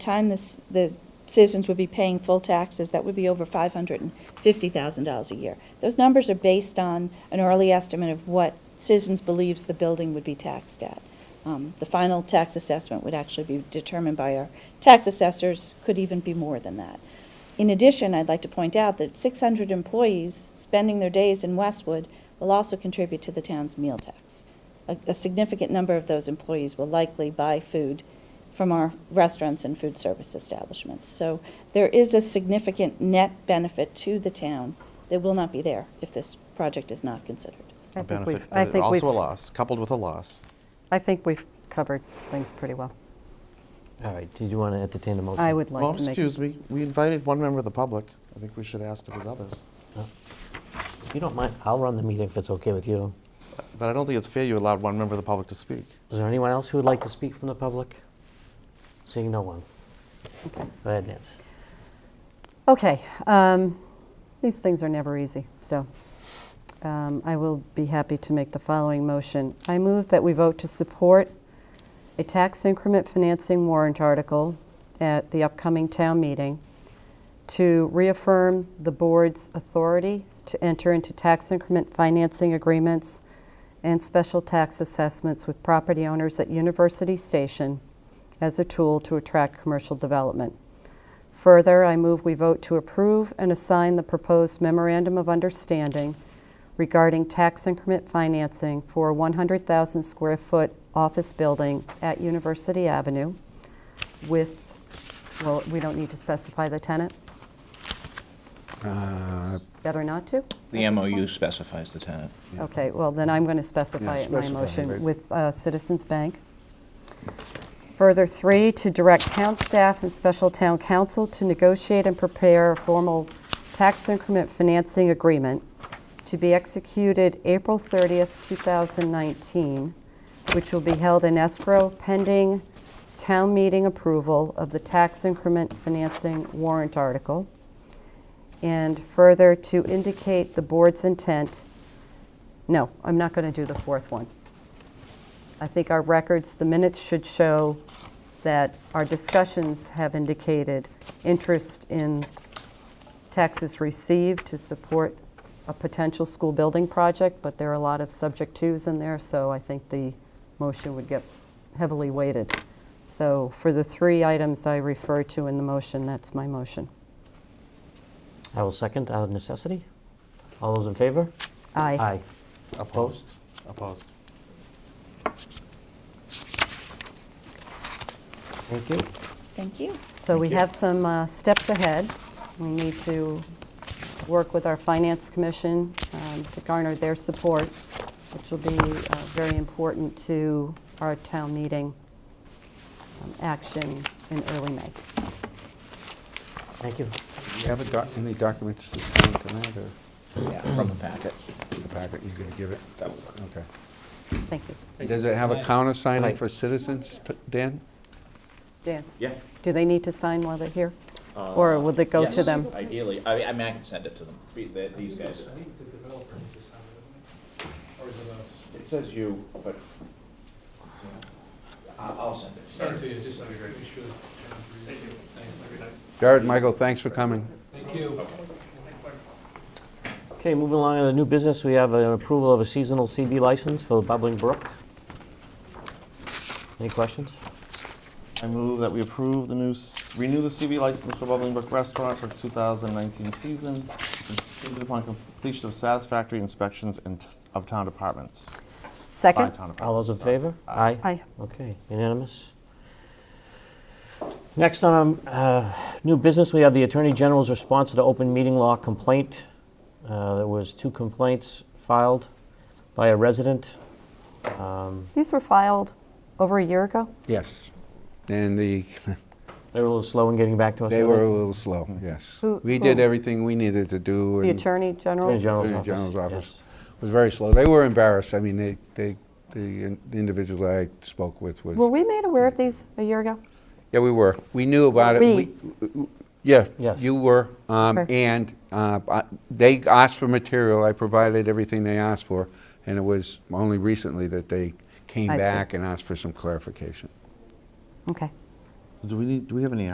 time this, the citizens would be paying full taxes, that would be over five hundred and fifty thousand dollars a year. Those numbers are based on an early estimate of what citizens believes the building would be taxed at. Um, The final tax assessment would actually be determined by our tax assessors, could even be more than that. In addition, I'd like to point out that 600 employees spending their days in Westwood will also contribute to the town's meal tax. A a significant number of those employees will likely buy food from our restaurants and food service establishments. So there is a significant net benefit to the town that will not be there if this project is not considered. I A think we've- benefit, I but think also a we've- loss, coupled with a loss. I think we've covered things pretty well. All right, did you want to entertain a motion? I would Well, like to make. excuse me, we invited one member of the public. I think we should ask if there's others. If you don't mind, I'll run the meeting if it's okay with you. But I don't think it's fair you allowed one member of the public to speak. Is there anyone else who would like to speak from the public? Seeing no one. Go ahead, Nancy. Okay, um, these things are never easy, so um, I will be happy to make the following motion. I move that we vote to support a tax increment financing warrant article at the upcoming town meeting to reaffirm the board's authority to enter into tax increment financing agreements and special tax assessments with property owners at University Station as a tool to attract commercial development. Further, I move we vote to approve and assign the proposed memorandum of understanding regarding tax increment financing for a 100,000 square foot office building at University Avenue with, well, we don't need to specify the tenant? Uh, Better not to? The MOU specifies the tenant. Okay, well, then I'm going to specify Yeah, it in my specify, right. motion with uh, Citizens Bank. Further, three, to direct town staff and special town council to negotiate and prepare a formal tax increment financing agreement to be executed April 30th, 2019, which will be held in escrow pending town meeting approval of the tax increment financing warrant article. And further, to indicate the board's intent no, I'm not going to do the fourth one. I think our records, the minutes should show that our discussions have indicated interest in taxes received to support a potential school building project, but there are a lot of subject twos in there, so I think the motion would get heavily weighted. So for the three items I refer to in the motion, that's my motion. I will second out of necessity. All those in favor? Aye. Aye. Opposed? Opposed. Thank you. Thank you. So we have some uh, steps ahead. We need to work with our Finance Commission um, to garner their support, which will be uh, very important to our town meeting um, action in early May. Thank you. Do you have a doc- any documents to sign tonight, or From the packet. the packet you're going to give it? Okay. Thank you. Does it have a counter signing Right. for citizens, t- Dan? Dan, Yeah. do they need to sign while they're here? Or will it go to Uh, Yes, them? Ideally, I mean, I mean, I can send it to them, Be- the- these guys. I think it's the developer needs to sign it, doesn't it? Or is it us? It says you, but I- I'll send it. Sorry to you, just so we be sure. Thank you. Thanks. Jared, Michael, thanks for coming. Thank you. Okay, moving along to the new business, we have an approval of a seasonal CB license for the Bubbling Brook. Any questions? I move that we approve the new, s- renew the CV license for Bubbling Brook Restaurant for its 2019 season, contingent upon completion of satisfactory inspections and t- of town departments. By Second? town departments. All those in sorry. favor? Aye. Aye. Okay, unanimous. Next on um, new business, we have the Attorney General's response to the open meeting law complaint. Uh, There was two complaints filed by a resident. Um, These were filed over a year ago? Yes. And the, They were a little slow in getting back to us. they weren't were a little slow, yes. Who- We who? did everything we needed to do. The and- Attorney General? Attorney General's Attorney office. General's office. yes. It was very slow. They were embarrassed. I mean, they, they, the in- the individual I spoke with Were was, we made aware of these a year ago? yeah, we were. We knew about it. We. w- Yeah, Yes. you were. Um, Okay. And uh, I- they asked for material. I provided everything they asked for. And it was only recently that they came I see. back and asked for some clarification. Okay. Do we need, do we have any